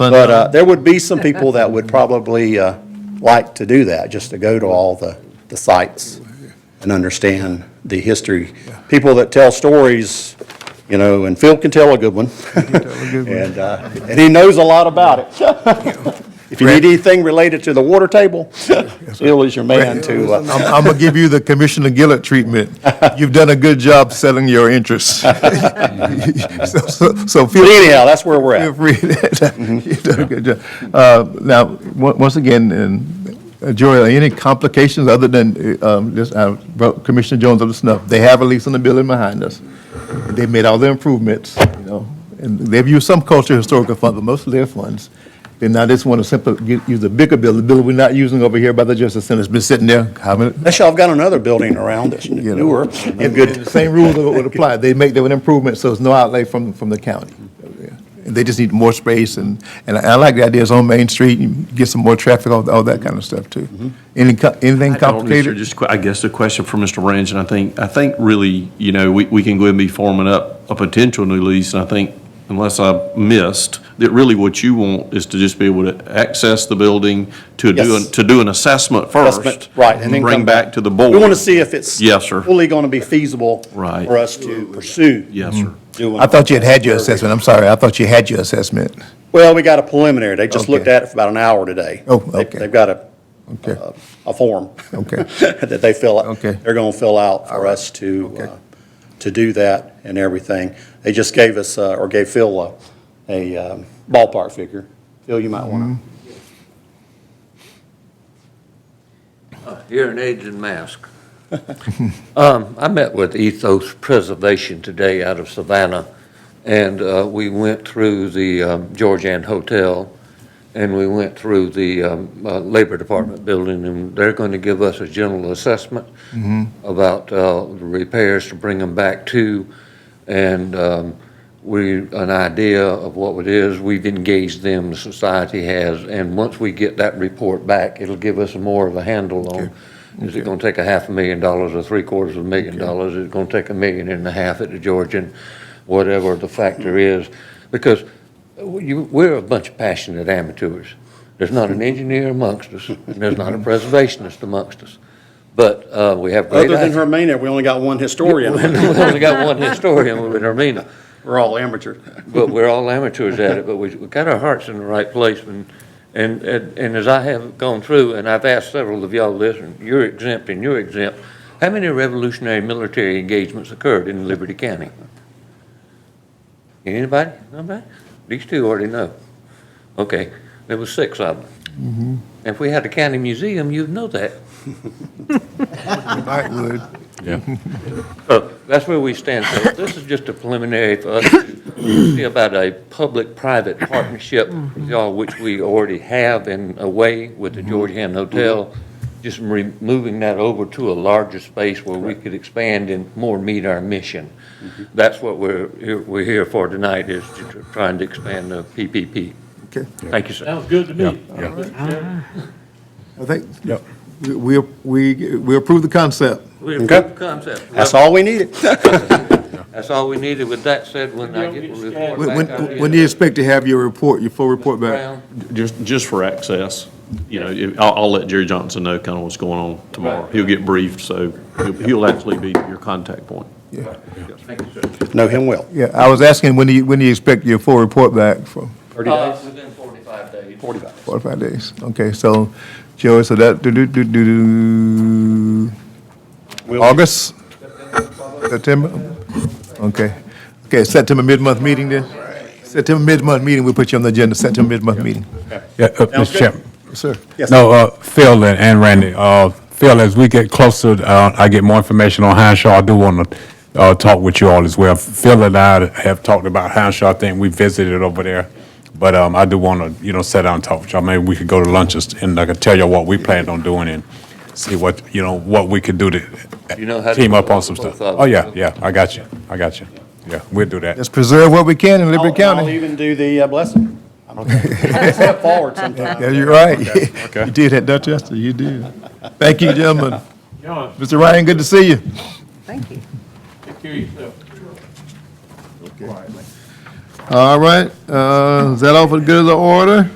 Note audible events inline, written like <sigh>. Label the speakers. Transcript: Speaker 1: But uh, there would be some people that would probably uh, like to do that, just to go to all the, the sites and understand the history. People that tell stories, you know, and Phil can tell a good one. And, uh, and he knows a lot about it. <laughs> If you need anything related to the water table, Phil is your man to, uh,
Speaker 2: I'm, I'm gonna give you the Commissioner Gillett
Speaker 1: <laughs>
Speaker 2: treatment. You've done a good job selling your interests. <laughs> So- So so feel.
Speaker 1: but anyhow, that's where we're
Speaker 2: Feel
Speaker 1: at.
Speaker 2: free. <laughs> You've done a good job. Uh, Now, on- once again, and, uh, Joy, any complications other than, uh, um, just, uh, brought Commissioner Jones up to snuff? They have a lease on the building behind us. They made all their improvements, you know, and they've used some cultural historical funds, but most of their funds. They now just want to simply get- use the bigger building, the building we're not using over here by the Justice Center. It's been sitting there, how many,
Speaker 1: Actually, I've got another building around that's
Speaker 2: know.
Speaker 1: newer and
Speaker 2: the
Speaker 1: good.
Speaker 2: same rules would would apply. They make their improvements, so there's no outlay from, from the county. And They just need more space, and, and I like the ideas on Main Street, you get some more traffic, all, all that kind of stuff, too. Any, co- anything
Speaker 3: Mm-hmm. I don't, Mr.
Speaker 2: complicated?
Speaker 3: Just, que- I guess a question for Mr. Range, and I think, I think really, you know, we, we can go ahead and be forming up a potential new lease, and I think, unless I missed, that really what you want is to just be able to access the building to do, an-
Speaker 1: Yes.
Speaker 3: to do an assessment first.
Speaker 1: assessment, Right, and then
Speaker 3: Bring
Speaker 1: come
Speaker 3: back to the board.
Speaker 1: We want to see if it's.
Speaker 3: Yes, sir.
Speaker 1: Fully going to be feasible.
Speaker 3: Right.
Speaker 1: For us to pursue.
Speaker 3: Yes, sir.
Speaker 1: doing-
Speaker 2: I thought you had had your assessment, I'm sorry, I thought you had your assessment.
Speaker 1: Well, we got a preliminary. They just looked
Speaker 2: Okay.
Speaker 1: at it for about an hour today.
Speaker 2: Oh,
Speaker 1: They-
Speaker 2: okay.
Speaker 1: They've got a,
Speaker 2: Okay,
Speaker 1: a- a form.
Speaker 2: <laughs> Okay.
Speaker 1: <laughs> That they fill, out.
Speaker 2: Okay.
Speaker 1: they're going to fill out for us to, uh, to do that and everything. They just gave us, uh, or gave Phil a, a um, ballpark figure. Phil, you might want
Speaker 2: Mm-hmm.
Speaker 4: Hearing aids and mask. <laughs> Um, I met with Ethos Preservation today out of Savannah, and uh, we went through the um, Georgian Hotel, and we went through the um, uh, Labor Department building, and they're going to give us a general assessment about uh, the repairs to bring them back to, and um, we, an idea of what it is. We've engaged them, the society has, and once we get that report back, it'll give us more of a handle on, is it going to take a half a million dollars or three quarters of a million dollars? Is it going to take a million and a half at the Georgian, whatever the factor is? Because you, we're a bunch of passionate amateurs. There's not an engineer amongst us, and
Speaker 1: <laughs>
Speaker 4: there's not a preservationist amongst us. But uh, we have
Speaker 1: to.
Speaker 4: great.
Speaker 1: Other than
Speaker 4: ideas.
Speaker 1: Hermina, we only got one <laughs> historian.
Speaker 4: <laughs> We only got one historian with Hermina,
Speaker 1: We're all amateurs.
Speaker 4: but we're all amateurs at it, but we, we got our hearts in the right place. And, and, and and as I have gone through, and I've asked several of y'all this, and you're exempt and you're exempt, how many revolutionary military engagements occurred in Liberty County? Anybody? Nobody? These two already know. Okay, there was six of them. If we had a county museum, you'd know that.
Speaker 2: I would.
Speaker 4: So that's where we stand. So this is just a preliminary for us to see about a public-private partnership, y'all, which we already have in a way with the Georgetown Hotel, just re- moving that over to a larger space where we could expand and more meet our mission. That's what we're, here- we're here for tonight, is to tr- trying to expand the PPP.
Speaker 2: Okay.
Speaker 4: Thank you, sir.
Speaker 5: Sounds good to me.
Speaker 2: I think, we, we- we, we approve the concept.
Speaker 4: We
Speaker 1: Okay.
Speaker 4: approve the concept.
Speaker 1: That's all we needed.
Speaker 4: That's all we needed. With that said, when I get the report
Speaker 2: When,
Speaker 4: back.
Speaker 2: when-
Speaker 4: I'll get
Speaker 2: when do you expect to have your report, your full report
Speaker 4: it.
Speaker 2: back?
Speaker 4: Brown?
Speaker 3: Just, just for access, you know, if- I'll, I'll let Jerry Johnson know kind of what's going on tomorrow. He'll get briefed, so he'll- he'll actually be your contact point.
Speaker 1: Know him well.
Speaker 2: Yeah, I was asking, when do you, when do you expect your full report back from?
Speaker 4: Uh, Within 45 days. 45.
Speaker 2: Four or five days. Okay, so, Joey, so that, do, do, do, do, do, August? September? Okay. Okay, September mid-month meeting then? September mid-month meeting, we put you on the agenda, September mid-month meeting.
Speaker 6: Yeah, uh, Mr. Chairman.
Speaker 2: Yes, Sir.
Speaker 1: Yes.
Speaker 6: No, uh, Phil and- and Randy, uh, Phil, as we get closer, uh, I get more information on Henshaw, I do want to uh, talk with you all as well. Phil and I have talked about Henshaw, I think we visited over there, but um, I do want to, you know, sit down and talk with y'all. Maybe we could go to lunches and I could tell you what we planned on doing and see what, you know, what we could do
Speaker 4: You know how
Speaker 6: to
Speaker 4: to
Speaker 6: team up
Speaker 4: do
Speaker 6: on some
Speaker 4: both
Speaker 6: stuff.
Speaker 4: of
Speaker 6: Oh, yeah,
Speaker 4: them.
Speaker 6: yeah, I got you, I got you. Yeah, we'll do that.
Speaker 2: Let's preserve what we can in
Speaker 1: I'll-
Speaker 2: Liberty
Speaker 1: and I'll
Speaker 2: County.
Speaker 1: even do the uh, blessing. I'm okay. <laughs> Step forward sometime.
Speaker 2: Yeah, you're right. <laughs> You did that, Dorchester, you did. Thank you, gentlemen.
Speaker 5: John,
Speaker 2: Mr. Ryan, good to see you.
Speaker 5: take care of yourself.
Speaker 2: All right, uh, is that all for the good of the order?